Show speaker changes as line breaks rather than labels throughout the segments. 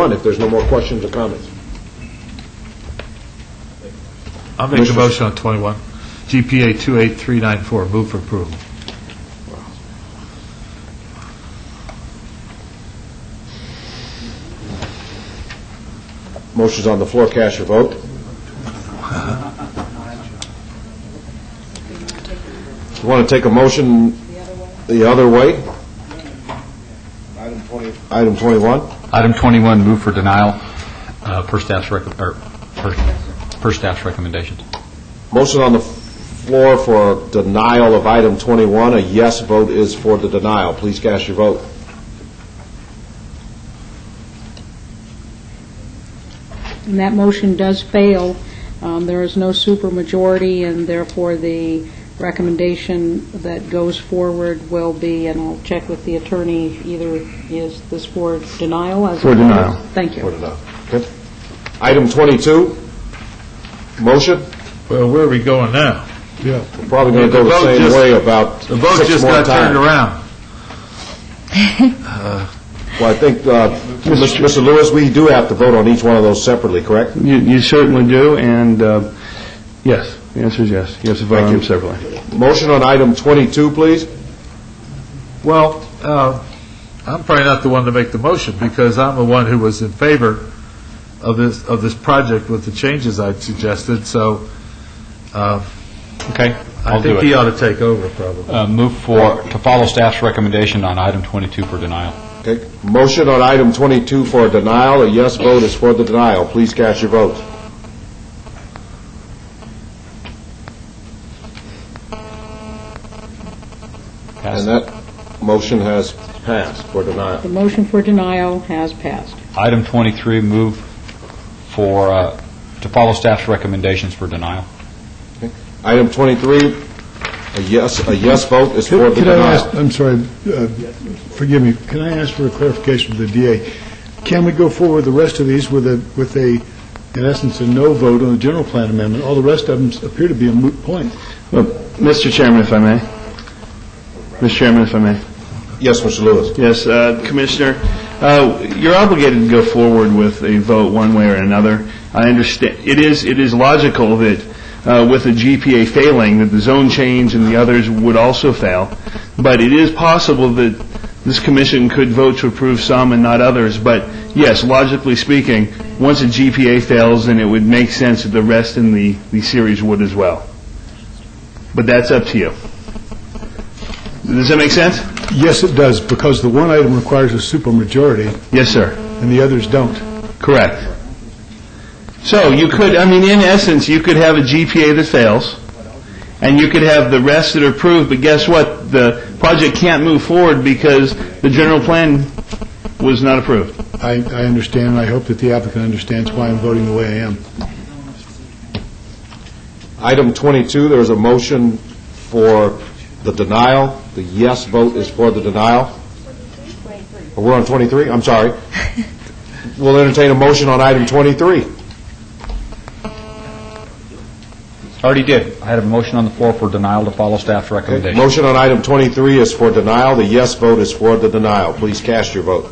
on if there's no more questions or comments.
I'll make a
Mr.
motion on 21. GPA 28394, move for approval.
Motion's on the floor, cast your vote. You want to take a motion the other way? Item 20. Item 21?
Item 21, move for denial uh, per staff's, rec- or per per staff's recommendations.
Motion on the floor for denial of item 21. A yes vote is for the denial. Please cast your vote.
And that motion does fail. Um, There is no supermajority, and therefore the recommendation that goes forward will be, and I'll check with the attorney, either is this for denial as...
For denial.
Thank
For
you.
denial. Okay. Item 22, motion.
Well, where are we going now? Yeah.
We're Probably going to go the
The vote
same
just-
way about
The vote
six
just
more
got turned
times.
around.
Well, I think, uh, Mr. Lewis, we do have to vote on each one of those separately, correct?
You you certainly do, and uh, yes, the answer is yes. Yes, vote on them separately.
Motion on item 22, please.
Well, uh, I'm probably not the one to make the motion, because I'm the one who was in favor of this, of this project with the changes I suggested, so uh,
Okay?
I
I'll do
think he
it.
ought to take over, probably.
Uh, Move for, to follow staff's recommendation on item 22 for denial.
Okay. Motion on item 22 for denial. A yes vote is for the denial. Please cast your vote.
Pass.
And that motion has passed for denial.
The motion for denial has passed.
Item 23, move for, uh, to follow staff's recommendations for denial.
Item 23, a yes, a yes vote is for the
Could I ask,
denial.
I'm sorry, uh, forgive me, can I ask for a clarification from the DA? Can we go forward with the rest of these with a, with a, in essence, a no vote on the general plan amendment? All the rest of them appear to be a moot point.
Well, Mr. Chairman, if I may. Mr. Chairman, if I may.
Yes, Mr. Lewis.
Yes, uh, Commissioner, uh, you're obligated to go forward with a vote one way or another. I understand, it is, it is logical that uh, with the GPA failing, that the zone change and the others would also fail, but it is possible that this commission could vote to approve some and not others, but yes, logically speaking, once a GPA fails, then it would make sense that the rest in the, the series would as well. But that's up to you. Does that make sense?
Yes, it does, because the one item requires a supermajority
Yes, sir.
and the others don't.
Correct. So you could, I mean, in essence, you could have a GPA that fails, and you could have the rest that are approved, but guess what? The project can't move forward because the general plan was not approved.
I, I understand, and I hope that the applicant understands why I'm voting the way I am.
Item 22, there is a motion for the denial. The yes vote is for the denial. Oh, We're on 23? I'm sorry. We'll entertain a motion on item 23.
Already did. I had a motion on the floor for denial to follow staff's
Okay.
recommendation.
Motion on item 23 is for denial. The yes vote is for the denial. Please cast your vote.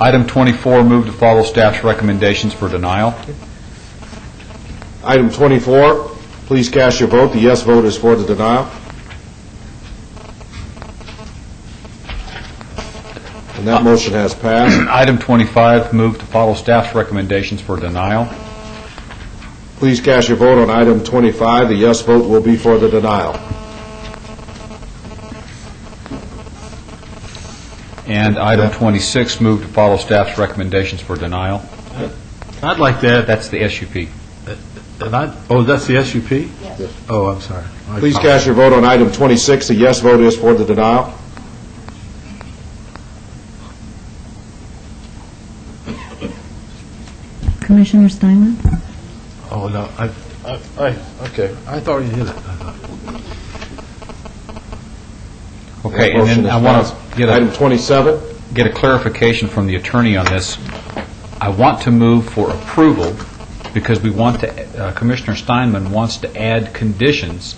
Item 24, move to follow staff's recommendations for denial.
Item 24, please cast your vote. The yes vote is for the denial. And that motion has passed.
Item 25, move to follow staff's recommendations for denial.
Please cast your vote on item 25. The yes vote will be for the denial.
And item 26, move to follow staff's recommendations for denial.
I'd like to add,
That's the SUP.
and I, oh, that's the SUP? Yes. Oh, I'm sorry. I
Please
apologize.
cast your vote on item 26. The yes vote is for the denial.
Commissioner Steinle?
Oh, no, I, I, I- okay, I thought you did it. I thought-
Okay,
That
and then
motion
I
is
want
passed.
to get
Item
a,
27,
get a clarification from the attorney on this. I want to move for approval because we want to, uh, Commissioner Steinman wants to add conditions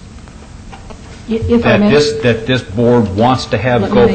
If I
that
may.
this, that this board wants to have
Let
go
me-